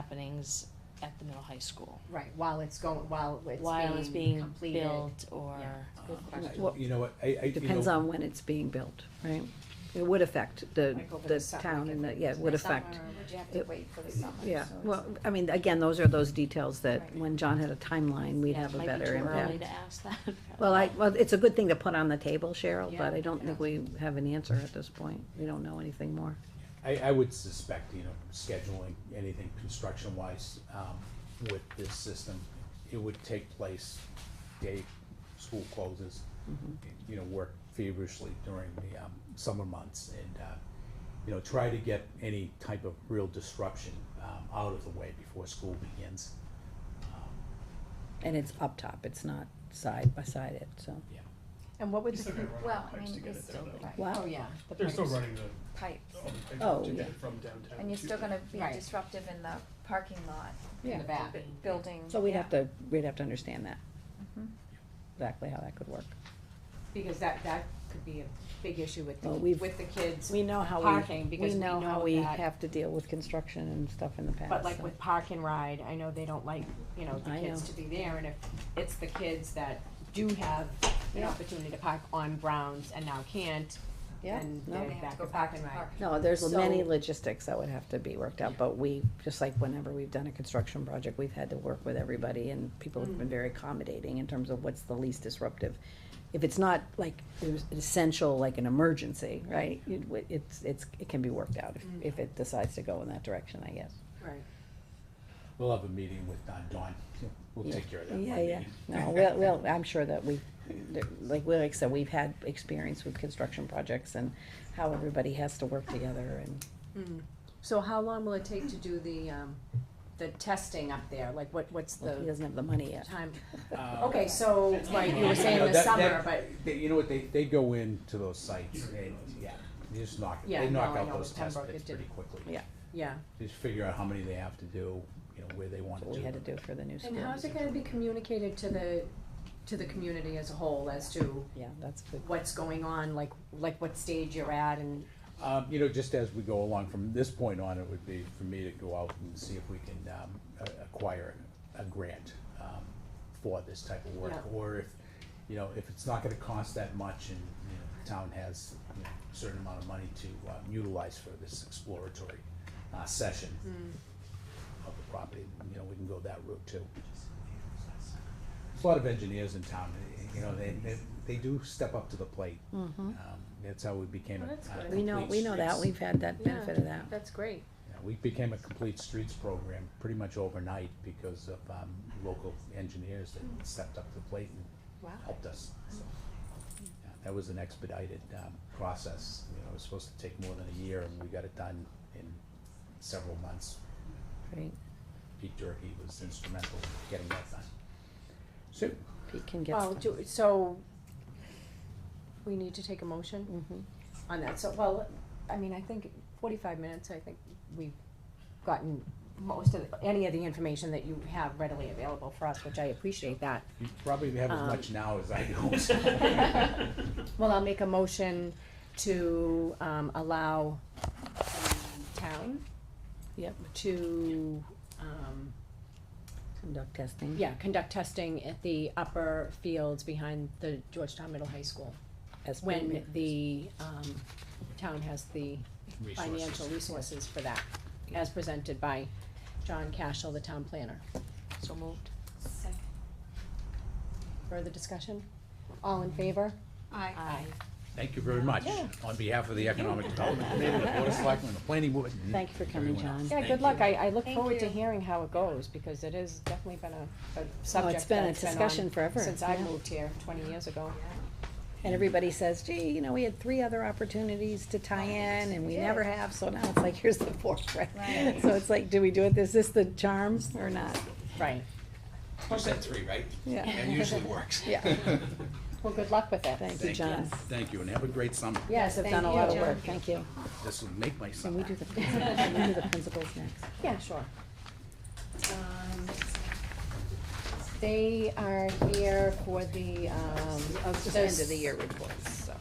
happenings at the middle high school? Right, while it's going, while it's While it's being being completed. built Uh-huh. or? Yeah, it's a good Uh, question. You know what, I, I, you Depends know- on when it's being built, right? It would affect the, Like over the the summer, town like and the, if yeah, it would Summer, affect, Would you have to it- wait for the summer? yeah. so it's- Well, I mean, again, those are those details that Right. when John had a timeline, we'd Yeah, it have a might be better Too early impact. to ask that. Well, I, well, it's a good thing to put on the table, Cheryl, but Yeah. I don't think we have an answer at this point. We don't know anything more. I, I would suspect, you know, scheduling anything construction wise, um, with this system, it would take place day school closes. Mm-hmm. You know, work feverishly during the, um, summer months and, uh, you know, try to get any type of real disruption, um, out of the way before school begins. And it's up top, it's not side by side it, so. Yeah. And what would, They're still gonna the- run Well, I out of pipes to mean, get it's it still, down though. right, oh, yeah. the They're still pipes. running the, pipes, all the Oh, pipes to yeah. get from downtown. and you're to still there. gonna be Right. disruptive in the parking lot, In the back. bu- building. So we'd yeah. have to, we'd have to understand that. Mm-hmm. Mhm. Exactly how that could work. Because that, that could be a big issue with, the- Well, we've- with the kids. We know how we, Parking, we because we know how know we that- have to deal with construction and stuff in the past. But like so. with park and ride, I know they don't like, you know, the I kids know. to be there, and if it's the kids that do have an Yeah. opportunity to park on grounds and now can't, Yeah, then no. they're They have back to go to park back and to ride. park. No, there's many So- logistics that would have to be worked out, but we, just like whenever we've done a construction project, we've had to work with everybody and people have been Mm. very accommodating in terms of what's the least disruptive. If it's not like, it was essential, like an emergency, right, it w- it's, it's, it can be worked out if, if Mm. it decides to go in that direction, I guess. Right. We'll have a meeting with uh, Dawn, we'll take care of that. one Yeah, yeah, meeting. no, well, well, I'm sure that we, that- like, we- like I said, we've had experience with construction projects and how everybody has to work together and So how long will it take to do the, um, the testing up there? Like, what, what's he the doesn't have the money yet. time? Um, Okay, so, like you were know, saying the that- summer, that- but, they- You know what, they, they go into those sites and, yeah, they just knock, Yeah, they knock no, I out know those with test Pembroke pits it did. pretty quickly. Yeah. yeah. Just figure out how many they have to do, you know, where they want That's to what do. we had to them. do for the new school. And how's it gonna be communicated to the, to the community as a whole as to Yeah, that's good. what's going on, like, like what stage you're at and, Um, you know, just as we go along, from this point on, it would be for me to go out and see if we can, um, a- acquire a grant, um, for this type of work. Yeah. Or if, you know, if it's not gonna cost that much and, you know, the town has, you know, a certain amount of money to um, utilize for this exploratory, uh, session of the property, you know, we can go that route too. There's a lot of engineers in town, you know, they, they, they do step up to the plate. Um, That's how we became a. Well, that's a good. We know, complete we know that, streets- we've had that Yeah. benefit of that. That's great. yeah, We became a complete streets program pretty much overnight because of um, local engineers that stepped up to the plate and Wow. helped us. So, yeah, That was an expedited um, process, you know, it was supposed to take more than a year and we got it done in several months. Great. Pete Durkee was instrumental in getting that done. So, Pete can get Well, stuff. do, so, we need to take a motion Mhm. on that, so, well, I mean, I think forty-five minutes, I think we've gotten most of, the- any of the information that you have readily available for us, which I appreciate that. you probably have as Um, much now as I do. Well, I'll make a motion to, um, allow the town Yep, to, um, conduct testing. yeah, conduct testing at the upper fields behind the Georgetown Middle High School. as When permitted. the, um, town has the financial Resources. resources for that, as presented by John Cashel, the town planner. So moved. Further discussion? All in favor? Aye. Thank you very much Yeah. on behalf of the Economic Development Committee, the Board of Selectmen, the Planning Board. and Thank you for coming, everyone else. John. Yeah, Thank good you. luck. I, I look Thank forward to you. hearing how it goes, because it has definitely been a, a subject that's Oh, been been a discussion on forever, Since I yeah. moved here twenty years ago. And everybody says, gee, you know, we had three other opportunities to tie in and we never have, so now it's like, here's the fourth, right? Right. So it's like, do we do it, is this the charm or not? Right. You said three, right? Yeah. That usually works. Yeah. Well, good luck with it. Thank you, Thank John. you, thank you, and have a great summer. You guys have Thank done a you, lot of John. work, thank you. This will make my Can summer. we do the, principals- can we do the principals next? Yeah, sure. Um, They are here for the, um. End of the year reports, so.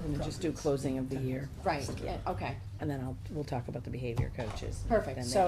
I'm gonna just do closing of the year, Right, yeah, okay. and then I'll, we'll talk about the behavior coaches. Perfect. Then they So